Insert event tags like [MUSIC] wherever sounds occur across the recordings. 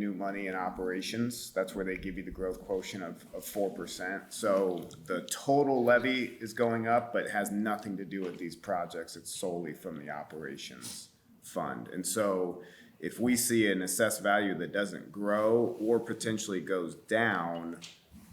money in operations. That's where they give you the growth quotient of, of four percent. So the total levy is going up, but has nothing to do with these projects. It's solely from the operations fund. And so if we see an assessed value that doesn't grow or potentially goes down,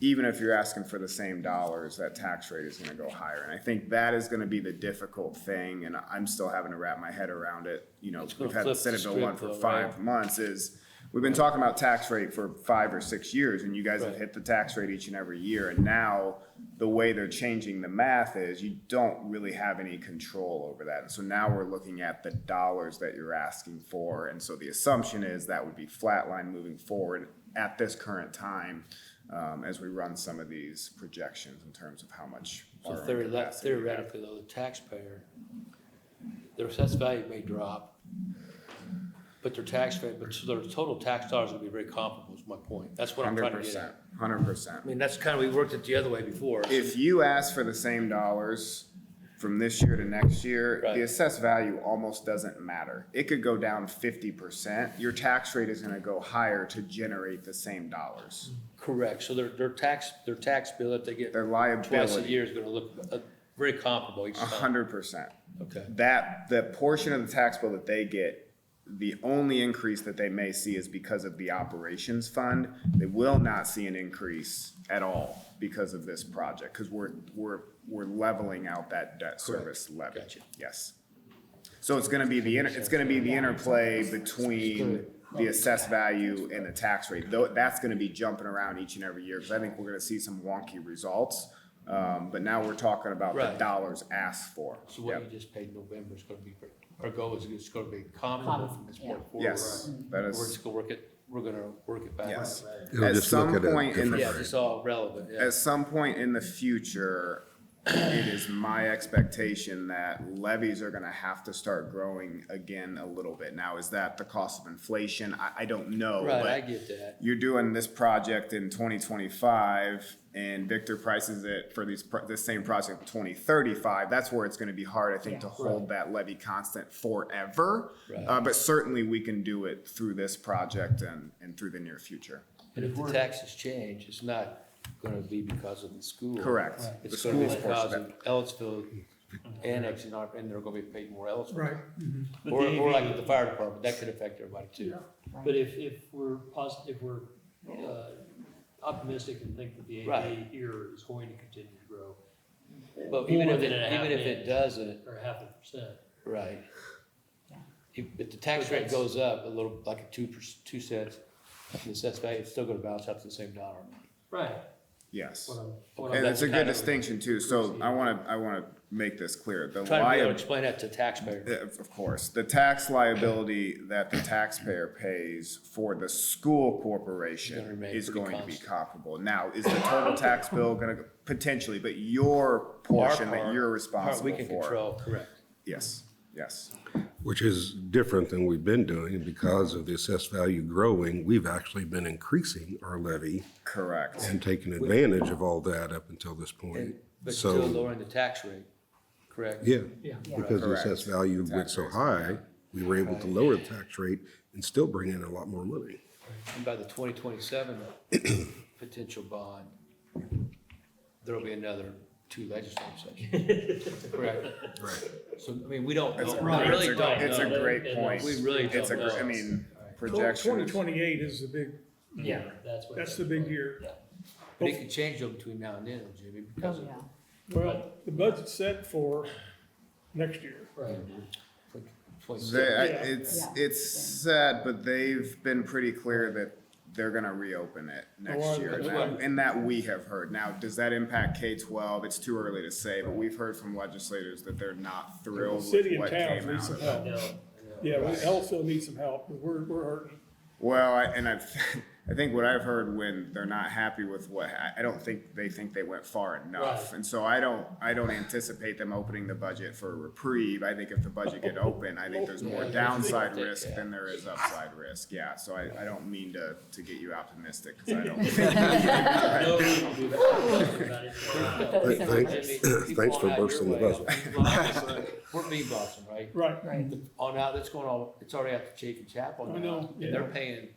even if you're asking for the same dollars, that tax rate is gonna go higher. And I think that is gonna be the difficult thing, and I'm still having to wrap my head around it. You know, gonna we've had the flip the Senate Bill one script for though, five right? months is, we've been talking about tax rate for five or six years, and you guys have Right. hit the tax rate each and every year. And now, the way they're changing the math is you don't really have any control over that. And so now we're looking at the dollars that you're asking for. And so the assumption is that would be flatline moving forward at this current time um, as we run some of these projections in terms of how much. So borrowing theoretically, capacity we have. theoretically, though, the taxpayer, their assessed value may drop, but their tax rate, but their total tax dollars will be very comparable, is my point. That's what I'm Hundred trying to get percent, at. hundred percent. I mean, that's kind of, we worked it the other way before. if you ask for the same dollars from this year to next year, Right. the assessed value almost doesn't matter. It could go down fifty percent. Your tax rate is gonna go higher to generate the same dollars. Correct. So their, their tax, their tax bill that they get Their twice a liability, year is gonna look uh, very comparable each a time. hundred percent. Okay. That, the portion of the tax bill that they get, the only increase that they may see is because of the operations fund. They will not see an increase at all because of this project, because we're, we're, we're leveling out that debt service levy. Gotcha. Yes. So it's gonna be the, inter- it's gonna be the interplay between the assessed value and the tax rate, though, that's gonna be jumping around each and every year, because I think we're gonna see some wonky results. Um, but now we're talking about the Right. dollars asked for. So what Yep. you just paid November is gonna be, very- our goal is it's gonna be comparable from this point forward. Yes, that We're is, just gonna work it, we're gonna work it back. yes. It'll At just look some at it point in Yeah, the, differently. it's all relevant, yeah. at some point in the future, it is my expectation that levies are gonna have to start growing again a little bit. Now, is that the cost of inflation? I, I don't know, Right, I but get that. you're doing this project in twenty twenty-five and Victor prices it for these, pro- this same project in twenty thirty-five, that's where it's gonna be hard, I think, to hold that levy constant forever. Right. Uh, but certainly we can do it through this project and, and through the near future. And if the taxes change, it's not gonna be because of the school. Correct. The It's gonna be school's portion because of of Ellisville annexing our, and they're gonna be paid more Ellisville. Right. But Or, the or AV like with the fire department, that could affect everybody too. But if, if we're positive, if we're uh, optimistic and think that the Right. AV here is going to continue to grow, But even More if, it- than a half even if it inch. doesn't, or half a percent, right. If, if the tax But rate that's- goes up a little, like a two, per- two cents, the assessed value, it's still gonna bounce out to the same dollar. right? Yes. what I'm- what I'm- And it's a good kind of- distinction too, so I wanna, I wanna make this clear, the Trying to be able to liability, explain that to taxpayers. of of course, the tax liability that the taxpayer pays for the school Gonna corporation remain is pretty going to be constant. comparable. Now, is the total tax bill gonna, go- potentially, but your Our portion that part- you're part We responsible can for. control, correct. Yes, yes, Which is different than we've been doing because of the assessed value growing. We've actually been increasing our levy correct. and taking advantage of all that up until this point. And- But still So, lowering the tax rate, correct? yeah, Yeah. because the assessed value went so high, we were able to lower the tax rate and still bring in a lot more money. And by the twenty [CLEARS THROAT] twenty-seven potential bond, there'll be another two legislative sessions. [LAUGHS] Correct? Right. So, I mean, we don't It's a know, great- we really it's a- don't It's a know. great And, uh, point. We really It's a, don't gr- I know. mean, projection Twenty is. twenty-eight is the big, Yeah, that's what. that's the big year. But it could change them between now and then, though, Jimmy, because Oh, of. yeah. Well, the budget's set for next year. Right. like, 27. They, I- Yeah. it's, Yeah. it's sad, but they've been pretty clear that they're gonna reopen it Oh, I- next year. And that's that, what- and that we have heard. Now, does that impact K twelve? It's too early to say, but we've heard from legislators that they're not thrilled City with and Oh, what towns came need out some of I it. help. know, I know. Yeah, we also need some help, but we're, we're hurting. Well, I- and I've, [LAUGHS] I think what I've heard when they're not happy with what, I, I don't think they think they went far enough. Right. And so I don't, I don't anticipate them opening the budget for a reprieve. I think if the budget get open, I think there's more Yeah, downside yeah. risk than there is upside risk. Yeah, so I, I don't mean to, to get you optimistic, cause I don't. think- [LAUGHS] No, we can do [LAUGHS] that. [LAUGHS] About it. Those Thank- numbers. Jimmy, Thanks- keep [COUGHS] thanks on for out your bursting the way. We're bean bossing, right? Right. Right. On out, it's going all, it's already out to Chafin Chapel I now, know, and they're yeah. paying